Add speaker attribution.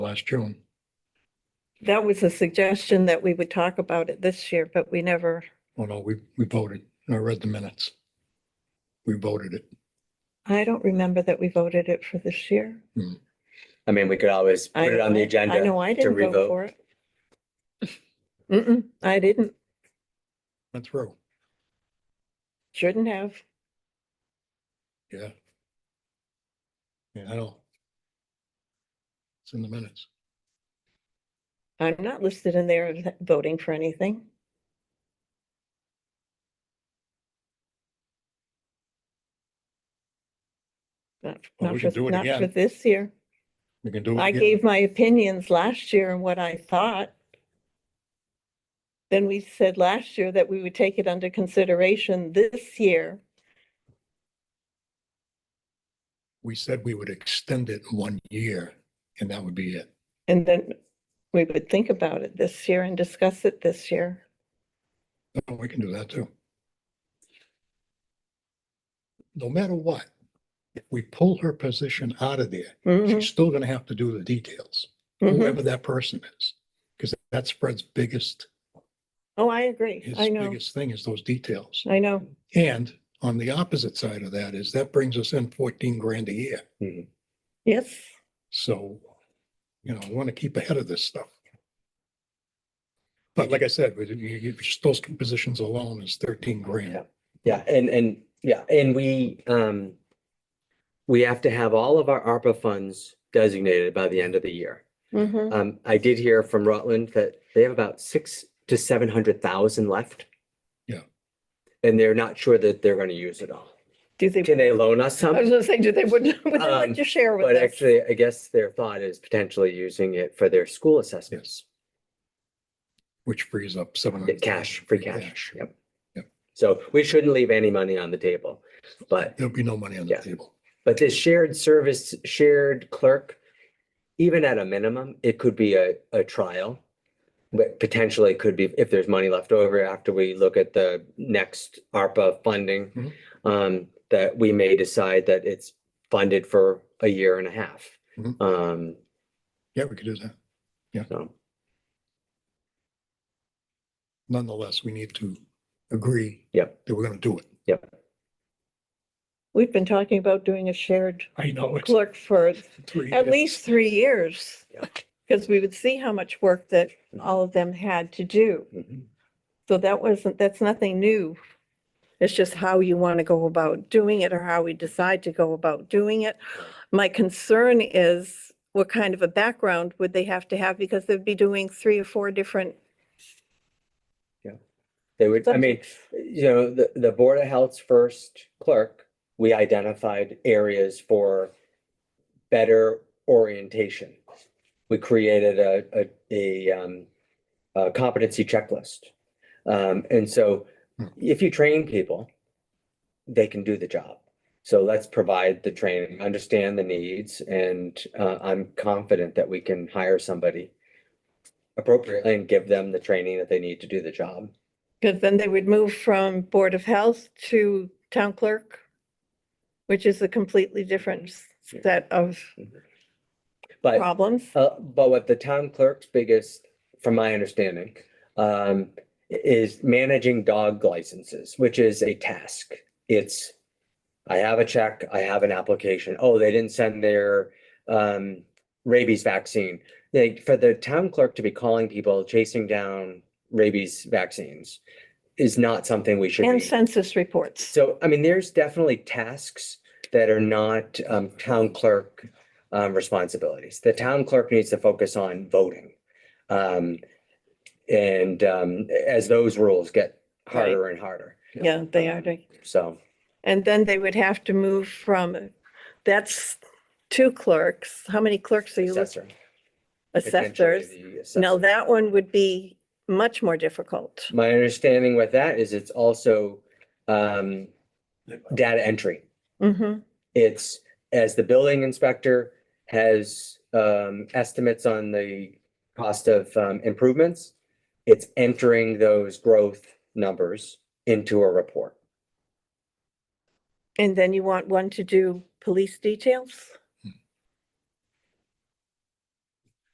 Speaker 1: last June.
Speaker 2: That was a suggestion that we would talk about it this year, but we never,
Speaker 1: Oh, no, we, we voted. I read the minutes. We voted it.
Speaker 2: I don't remember that we voted it for this year.
Speaker 3: I mean, we could always
Speaker 2: I
Speaker 3: put it on the
Speaker 2: know-
Speaker 3: agenda.
Speaker 2: I know I
Speaker 3: to
Speaker 2: didn't vote
Speaker 3: revote.
Speaker 2: for it. Mm-mm, I didn't,
Speaker 1: Went through.
Speaker 2: shouldn't have.
Speaker 1: Yeah. Yeah, I know. It's in the minutes.
Speaker 2: I'm not listed in there as voting for anything. Not,
Speaker 1: Well, we
Speaker 2: not
Speaker 1: should
Speaker 2: for,
Speaker 1: do it
Speaker 2: not for
Speaker 1: again.
Speaker 2: this year.
Speaker 1: We can do it.
Speaker 2: I
Speaker 1: again.
Speaker 2: gave my opinions last year and what I thought. Then we said last year that we would take it under consideration this year.
Speaker 1: We said we would extend it one year and that would be it.
Speaker 2: And then we would think about it this year and discuss it this year.
Speaker 1: Oh, We can do that too. No matter what, if we pull her position out of there,
Speaker 2: Mhm,
Speaker 1: she's still gonna have to do the details,
Speaker 2: mhm.
Speaker 1: whoever that person is. Because that's Fred's biggest,
Speaker 2: Oh, I agree.
Speaker 1: his
Speaker 2: I know.
Speaker 1: biggest thing is those details.
Speaker 2: I know.
Speaker 1: And on the opposite side of that is that brings us in fourteen grand a year.
Speaker 2: Yes.
Speaker 1: So, you know, we want to keep ahead of this stuff. But like I said, with you, you, just those two positions alone is thirteen grand.
Speaker 3: Yeah. Yeah, and, and, yeah, and we, um, we have to have all of our ARPA funds designated by the end of the year.
Speaker 2: Mhm.
Speaker 3: Um, I did hear from Rutland that they have about six to seven hundred thousand left.
Speaker 1: Yeah.
Speaker 3: And they're not sure that they're gonna use it all.
Speaker 2: Do they?
Speaker 3: Can they loan us some?
Speaker 2: I was gonna say, do they, would, would they
Speaker 3: Um,
Speaker 2: like to share with
Speaker 3: But
Speaker 2: us?
Speaker 3: actually, I guess their thought is potentially using it for their school assessments,
Speaker 1: Which frees up seven
Speaker 3: the
Speaker 1: hundred.
Speaker 3: cash, free cash, yep.
Speaker 1: Yep.
Speaker 3: So we shouldn't leave any money on the table, but,
Speaker 1: There'll be no money on the
Speaker 3: Yeah.
Speaker 1: table.
Speaker 3: but this shared service, shared clerk, even at a minimum, it could be a, a trial. But potentially could be, if there's money left over after we look at the next ARPA funding,
Speaker 1: Mhm.
Speaker 3: um, that we may decide that it's funded for a year and a half.
Speaker 1: Mhm.
Speaker 3: Um,
Speaker 1: Yeah, we could do that.
Speaker 3: so.
Speaker 1: Nonetheless, we need to agree.
Speaker 3: Yep.
Speaker 1: That we're going to do it.
Speaker 2: We've been talking about doing a shared
Speaker 1: I know. it's
Speaker 2: clerk for
Speaker 1: three
Speaker 2: at
Speaker 1: years.
Speaker 2: least three years.
Speaker 3: Yeah.
Speaker 2: Because we would see how much work that all of them had to do.
Speaker 3: Mhm.
Speaker 2: So that wasn't, that's nothing new. It's just how you want to go about doing it or how we decide to go about doing it. My concern is what kind of a background would they have to have because they'd be doing three or four different.
Speaker 3: They would, I mean,
Speaker 2: subjects.
Speaker 3: you know, the, the Board of Health's first clerk, we identified areas for better orientation. We created a, a, a, um, a competency checklist. Um, and so
Speaker 1: Hmm.
Speaker 3: if you train people, they can do the job. So let's provide the training, understand the needs, and, uh, I'm confident that we can hire somebody appropriately and give them the training that they need to do the job.
Speaker 2: Because then they would move from Board of Health to Town Clerk, which is a completely different s-
Speaker 3: Yeah.
Speaker 2: set of
Speaker 3: But
Speaker 2: problems.
Speaker 3: Uh, but what the town clerk's biggest, from my understanding, um, i- is managing dog licenses, which is a task. It's, I have a check, I have an application. Oh, they didn't send their, um, rabies vaccine. They, for the town clerk to be calling people chasing down rabies vaccines is not something we should be.
Speaker 2: And census reports.
Speaker 3: So, I mean, there's definitely tasks that are not um town clerk um responsibilities. The town clerk needs to focus on voting. Um, and um as those rules get harder and harder,
Speaker 2: Yeah, they are doing.
Speaker 3: so.
Speaker 2: And then they would have to move from, that's two clerks. How many clerks are you? look-
Speaker 3: assessor, potentially
Speaker 2: Assessors.
Speaker 3: the
Speaker 2: Now,
Speaker 3: assessor.
Speaker 2: that one would be much more difficult.
Speaker 3: My understanding with that is it's also um data entry.
Speaker 2: hmm
Speaker 3: It's as the building inspector has um estimates on the cost of um improvements. It's entering those growth numbers into a report.
Speaker 2: And then you want one to do police details?